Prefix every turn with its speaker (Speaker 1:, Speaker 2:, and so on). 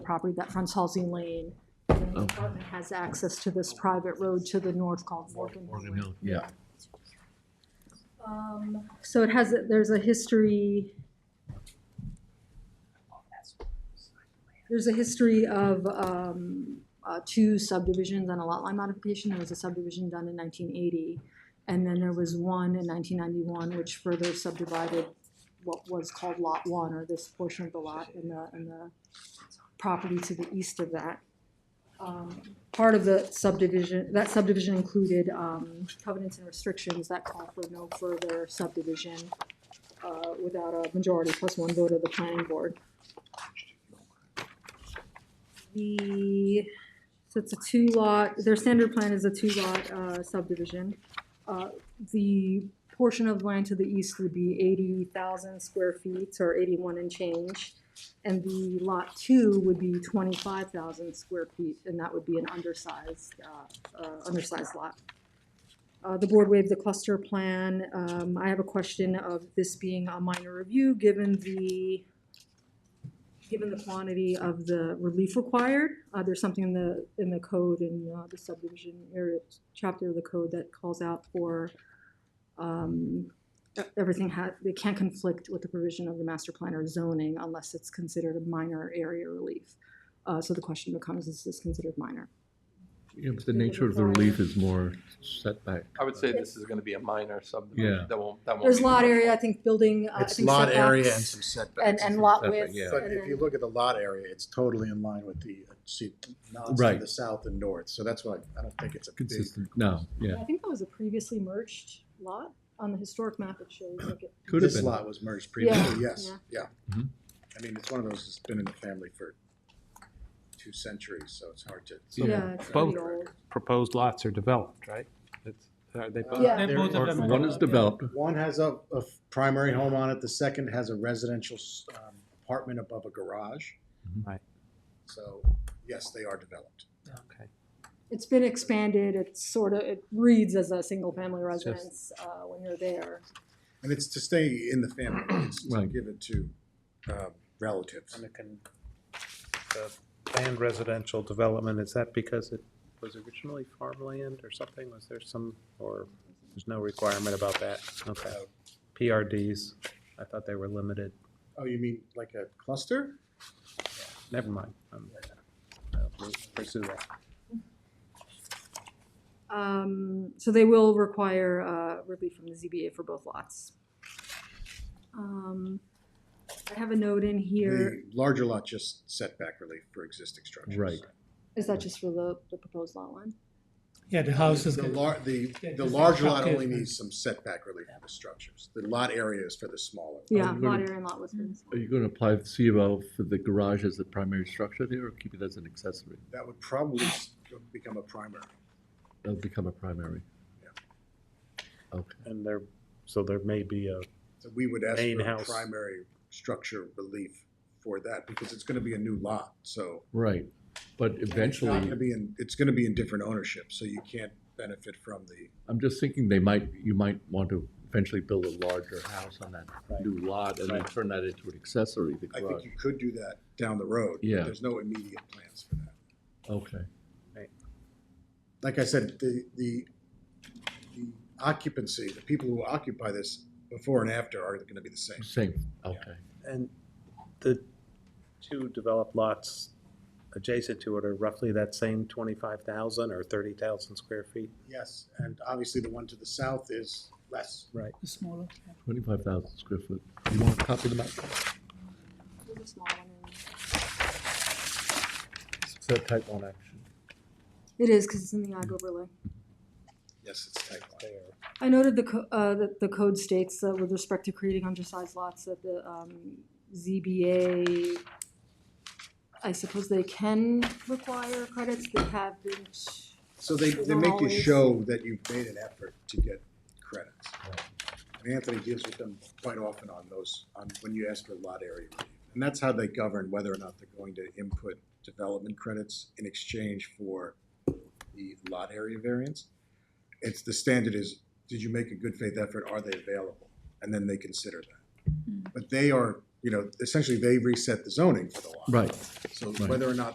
Speaker 1: property that fronts Halsey Lane. And The apartment has access to this private road to the north called Morgan Hill.
Speaker 2: Yeah.
Speaker 1: Um, So it has, a- there's a history. There's a history of um, uh, two subdivisions and a lot line modification. There was a subdivision done in 1980. And then there was one in 1991, which further subdivided what was called Lot 1, or this portion of the lot and the, and the property to the east of that. Um, Part of the subdivision, that subdivision included um, covenants and restrictions that call for no further subdivision uh, without a majority plus one vote of the planning board. The, so it's a two-lot, their standard plan is a two-lot uh, subdivision. Uh, The portion of land to the east would be eighty thousand square feet or eighty-one and change. And the lot two would be twenty-five thousand square feet, and that would be an undersized, uh, uh, undersized lot. Uh, the board waived the cluster plan. Um, I have a question of this being a minor review, given the, given the quantity of the relief required. Uh, there's something in the, in the code, in uh, the subdivision area, chapter of the code that calls out for, um, e- everything has, they can't conflict with the provision of the master plan or zoning unless it's considered a minor area relief. Uh, so the question becomes, is this considered minor?
Speaker 2: Yeah, but the nature of the relief is more setback.
Speaker 3: I would say this is gonna be a minor
Speaker 2: Yeah.
Speaker 3: subdivision, that won't, that won't.
Speaker 1: There's
Speaker 3: be
Speaker 1: lot
Speaker 3: commercial.
Speaker 1: area, I think building, uh, I
Speaker 4: It's
Speaker 1: think
Speaker 4: lot area and
Speaker 1: setbacks
Speaker 4: some
Speaker 1: And,
Speaker 4: setbacks.
Speaker 1: and lot
Speaker 2: Setback,
Speaker 1: width.
Speaker 2: yeah.
Speaker 1: and
Speaker 4: But if you
Speaker 1: then-
Speaker 4: look at the lot area, it's totally in line with the, uh, see, nods to
Speaker 2: Right.
Speaker 4: the south and north, so that's why I don't think it's a big.
Speaker 2: Consistent, no, yeah,
Speaker 1: I think that was a previously merged lot on the historic map, it shows like it.
Speaker 2: could have
Speaker 4: This
Speaker 2: been.
Speaker 4: lot was merged previously, yes,
Speaker 1: yeah.
Speaker 4: yeah.
Speaker 2: Mhm.
Speaker 4: I mean, it's one of those that's been in the family for two centuries, so it's hard to.
Speaker 2: Yeah.
Speaker 1: it's
Speaker 5: Both.
Speaker 1: pretty old.
Speaker 5: proposed lots are developed, right? It's- Are they both?
Speaker 4: Yeah.
Speaker 6: They're
Speaker 4: There
Speaker 6: both
Speaker 4: are-
Speaker 6: of them.
Speaker 2: Or One is developed,
Speaker 4: One has a, a f- primary home on it, the second has a residential s- um, apartment above a garage.
Speaker 2: Mhm.
Speaker 5: Right.
Speaker 4: So, yes, they are developed.
Speaker 5: Okay.
Speaker 1: It's been expanded, it's sort of, it reads as a single-family residence, uh, when you're there.
Speaker 4: And it's to stay in the family, it's to
Speaker 2: Right.
Speaker 4: give it to um, relatives.
Speaker 5: And it can, the planned residential development, is that because it was originally farmland or something? Was there some, or there's no requirement about that? Okay. PRDs, I thought they were limited.
Speaker 4: Oh, you mean like a cluster?
Speaker 5: Never mind. Um, I'll Pursue that.
Speaker 1: Um, so they will require, uh, relief from the ZBA for both lots. Um, I have a note in here,
Speaker 4: The larger lot just setback relief for existing structures.
Speaker 2: Right.
Speaker 1: is that just for the, the proposed lot line?
Speaker 6: Yeah, the house is
Speaker 4: The
Speaker 6: good.
Speaker 4: lar, the,
Speaker 6: Yeah,
Speaker 4: the
Speaker 6: just
Speaker 4: larger
Speaker 6: like
Speaker 4: lot
Speaker 6: cocktail
Speaker 4: only
Speaker 6: thing.
Speaker 4: needs some setback relief for the structures. The lot area is for the smaller. lot.
Speaker 1: Yeah, lot
Speaker 2: you gonna-
Speaker 1: area and lot width.
Speaker 2: Uh, are you gonna apply the C of O for the garage as the primary structure there, or keep it as an accessory?
Speaker 4: That would probably s- become a primary.
Speaker 2: That'll become a primary. Okay,
Speaker 5: And there, so there may be a,
Speaker 4: So we would ask
Speaker 5: Main
Speaker 4: for
Speaker 5: house.
Speaker 4: primary structure relief for that because it's gonna be a new lot, so.
Speaker 2: right, but
Speaker 4: It's not gonna
Speaker 2: eventually,
Speaker 4: be in, it's gonna be in different ownership, so you can't benefit from the,
Speaker 2: I'm just thinking they might, you might want to eventually build a larger house on that new lot and then
Speaker 5: Right.
Speaker 2: turn that into an accessory, the
Speaker 4: I
Speaker 2: garage.
Speaker 4: think you could do that down the road. but
Speaker 2: Yeah.
Speaker 4: There's no immediate plans for that.
Speaker 2: Okay,
Speaker 4: like I said, the, the, the occupancy, the people who occupy this before and after are gonna be the same.
Speaker 2: same, okay.
Speaker 5: and the two developed lots adjacent to it are roughly that same twenty-five thousand or thirty thousand square feet?
Speaker 4: Yes, and obviously the one to the south is less.
Speaker 6: The smaller. yeah.
Speaker 2: Twenty-five thousand square foot. You want to copy them out?
Speaker 1: There's a small one in there.
Speaker 2: So type one action.
Speaker 1: It is, because it's in the ag overlay.
Speaker 4: Yes, it's type one.
Speaker 1: I noted the, co- uh, that the code states that with respect to creating undersized lots, that the, um, ZBA, I suppose they can require credits, they have been,
Speaker 4: So they, they make you show that you've made an effort to get credits. And Anthony deals with them quite often on those, on when you ask for lot area relief. And that's how they govern whether or not they're going to input development credits in exchange for the lot area variance. It's, the standard is, did you make a good faith effort, are they available? And then they consider that. But they are you know, essentially they reset the zoning for the lot.
Speaker 2: Right.
Speaker 4: So
Speaker 2: Right.
Speaker 4: whether or not